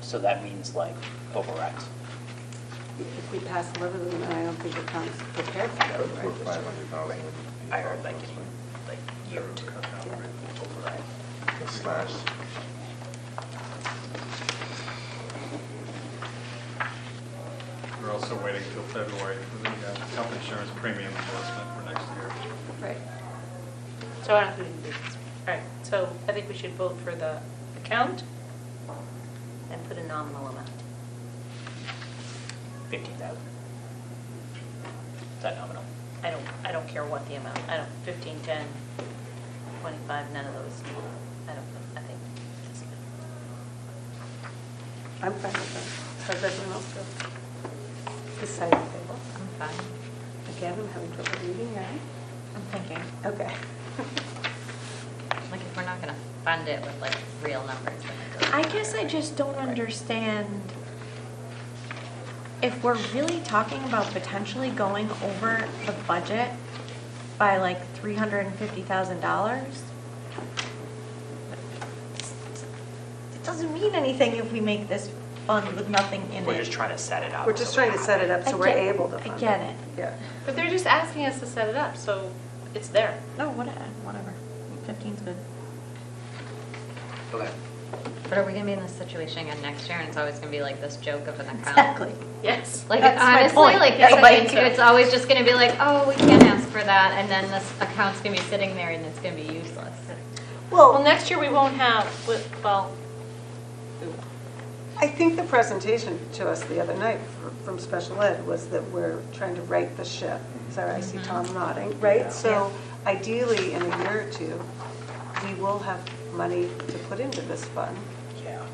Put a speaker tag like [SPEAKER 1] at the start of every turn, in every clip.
[SPEAKER 1] So that means like overrides.
[SPEAKER 2] If we pass 11 of them, I don't think the town's prepared
[SPEAKER 3] Yeah,
[SPEAKER 2] for
[SPEAKER 3] it's for
[SPEAKER 2] that, right?
[SPEAKER 3] five hundred thousand.
[SPEAKER 1] I heard like in like year two override.
[SPEAKER 3] Slash.
[SPEAKER 4] We're also waiting till February for the uh, health insurance premium adjustment for next year.
[SPEAKER 5] Right. So I don't think we can do this. All right, so I think we should vote for the account and put a nominal amount.
[SPEAKER 1] Fifteen thousand. Is that nominal?
[SPEAKER 5] I don't, I don't care what the amount, I don't, 15, 10, 25, none of those, I don't, I think. it's good.
[SPEAKER 2] I'm fine with that. How's everyone else feel? This side of the table.
[SPEAKER 5] I'm fine.
[SPEAKER 2] Again, I'm having trouble reading, right?
[SPEAKER 5] I'm thinking,
[SPEAKER 2] Okay.
[SPEAKER 5] like, if we're not going to fund it with like real numbers, then it doesn't
[SPEAKER 6] I guess I
[SPEAKER 5] matter, right?
[SPEAKER 6] just don't understand if we're really talking about potentially going over the budget by like three hundred and fifty thousand dollars. It doesn't mean anything if we make this fund with nothing in it.
[SPEAKER 1] We're just trying to set it up.
[SPEAKER 2] We're just
[SPEAKER 1] so we
[SPEAKER 2] trying to set it up
[SPEAKER 6] I
[SPEAKER 2] so we're
[SPEAKER 6] get-
[SPEAKER 2] able to
[SPEAKER 6] I
[SPEAKER 2] fund it.
[SPEAKER 6] get it.
[SPEAKER 2] Yeah.
[SPEAKER 5] But they're just asking us to set it up, so it's there.
[SPEAKER 6] No, what- whatever, fifteen's good.
[SPEAKER 1] have- Okay.
[SPEAKER 7] But are we gonna be in this situation again next year, and it's always gonna be like this joke of an account?
[SPEAKER 6] Exactly.
[SPEAKER 5] Yes.
[SPEAKER 7] Like
[SPEAKER 6] That's my
[SPEAKER 7] honestly,
[SPEAKER 6] point.
[SPEAKER 7] like
[SPEAKER 6] Yes,
[SPEAKER 7] it's,
[SPEAKER 6] I
[SPEAKER 7] like,
[SPEAKER 6] think so.
[SPEAKER 7] it's always just gonna be like, oh, we can't ask for that, and then this account's gonna be sitting there and it's gonna be useless.
[SPEAKER 5] Well,
[SPEAKER 2] Well,
[SPEAKER 5] next year we won't have, we- well,
[SPEAKER 2] I think the presentation to us the other night fr- from special ed was that we're trying to right the ship. Sorry, I
[SPEAKER 6] Mm-hmm.
[SPEAKER 2] see Tom nodding, right? So ideally, in a year or two, we will have money to put into this fund.
[SPEAKER 1] Yeah.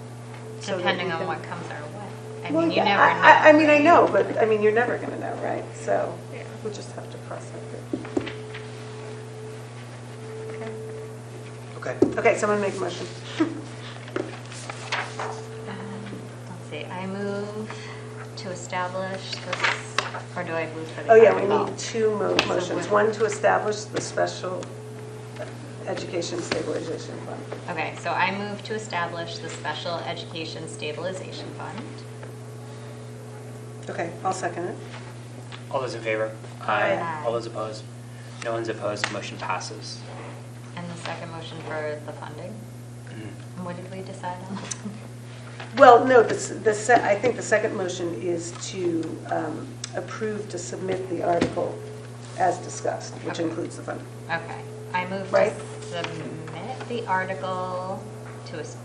[SPEAKER 2] so that
[SPEAKER 7] Depending
[SPEAKER 2] we
[SPEAKER 7] on
[SPEAKER 2] can-
[SPEAKER 7] what comes our way. I
[SPEAKER 2] Well,
[SPEAKER 7] mean, you
[SPEAKER 2] yeah,
[SPEAKER 7] never
[SPEAKER 2] I- I, I
[SPEAKER 7] know.
[SPEAKER 2] mean, I know, but, I mean, you're never going to know, right? So we'll just have to cross that bridge.
[SPEAKER 1] Okay.
[SPEAKER 2] Okay, someone make a motion.
[SPEAKER 7] Um, Let's see, I move to establish this, or do I move for the?
[SPEAKER 2] Oh, yeah, we
[SPEAKER 7] article?
[SPEAKER 2] need two mo- motions. One to establish the special education stabilization fund.
[SPEAKER 7] Okay, so I move to establish the Special Education Stabilization Fund.
[SPEAKER 2] Okay, I'll second it.
[SPEAKER 1] All those in favor?
[SPEAKER 7] Aye.
[SPEAKER 1] All those opposed? No one's opposed, motion passes.
[SPEAKER 7] And the second motion for the funding. And What did we decide on?
[SPEAKER 2] Well, no, the, s- the, se- I think the second motion is to um, approve to submit the article as discussed, which
[SPEAKER 7] Okay.
[SPEAKER 2] includes the fund.
[SPEAKER 7] Okay, I move
[SPEAKER 2] Right.
[SPEAKER 7] to submit the article to, a s-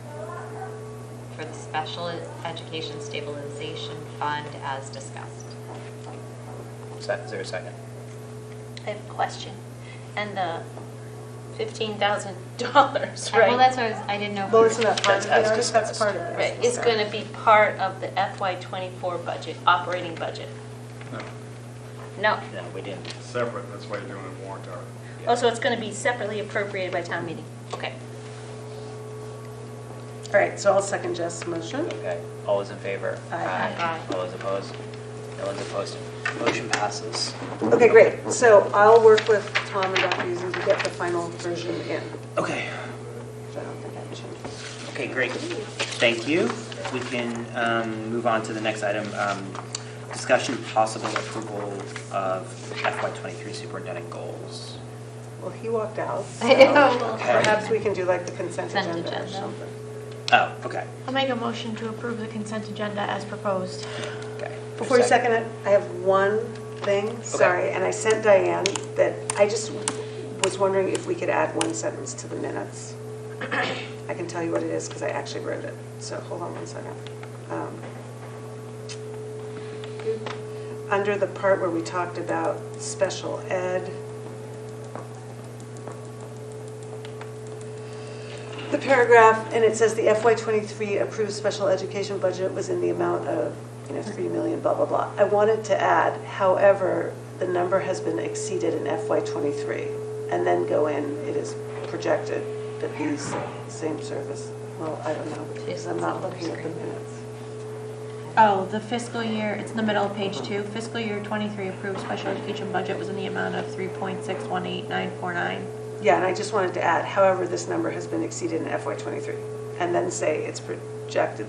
[SPEAKER 7] for the Special Education Stabilization Fund as discussed.
[SPEAKER 1] Is that- is there a second?
[SPEAKER 5] I have a question. And the $15,000, right?
[SPEAKER 7] Well, that's what I was, I didn't know. if
[SPEAKER 2] Well,
[SPEAKER 7] we
[SPEAKER 2] it's
[SPEAKER 7] were-
[SPEAKER 2] not part
[SPEAKER 1] That's
[SPEAKER 2] of
[SPEAKER 1] as
[SPEAKER 2] the article, that's
[SPEAKER 1] discussed.
[SPEAKER 2] part of it.
[SPEAKER 5] Right, it's going to be part of the FY '24 budget, operating budget.
[SPEAKER 4] No,
[SPEAKER 5] No.
[SPEAKER 1] No, we didn't.
[SPEAKER 4] it's Separate, that's why you're doing a warrant article.
[SPEAKER 5] Oh, so it's going to be separately appropriated by town meeting? Okay.
[SPEAKER 2] All right, so I'll second Jess's motion.
[SPEAKER 1] Okay, all those in favor?
[SPEAKER 2] Hmm? Aye.
[SPEAKER 5] Aye.
[SPEAKER 1] All those opposed? No one's opposed, motion passes.
[SPEAKER 2] Okay, great. So I'll work with Tom and Dr. Yuzi to get the final version in.
[SPEAKER 1] Okay,
[SPEAKER 2] So I don't think I changed.
[SPEAKER 1] okay, great. Thank you. We can um, move on to the next item. um, Discussion of possible approval of FY23 superintendent goals.
[SPEAKER 2] Well, he walked out, so
[SPEAKER 7] Ew.
[SPEAKER 2] perhaps we can do like the consent
[SPEAKER 7] Consent
[SPEAKER 2] agenda or
[SPEAKER 7] agenda.
[SPEAKER 2] something.
[SPEAKER 1] Oh, okay,
[SPEAKER 6] I'll make a motion to approve the consent agenda as proposed.
[SPEAKER 1] okay.
[SPEAKER 2] Before you second it, I have one thing, sorry, and I sent Diane that I just was wondering if we could add one sentence to the minutes. I can tell you what it is because I actually wrote it, so hold on one second. Um, Under the part where we talked about special ed, the paragraph, and it says the FY '23 approved special education budget was in the amount of, you know, 3 million, blah, blah, blah. I wanted to add, however, the number has been exceeded in FY '23, and then go in, it is projected that these same service, well, I don't know, because I'm not looking at the minutes.
[SPEAKER 6] Oh, the fiscal year, it's in the middle of page two, fiscal year 23 approved special education budget was in the amount of 3.618949.
[SPEAKER 2] Yeah, and I just wanted to add, however, this number has been exceeded in FY '23, and then say it's projected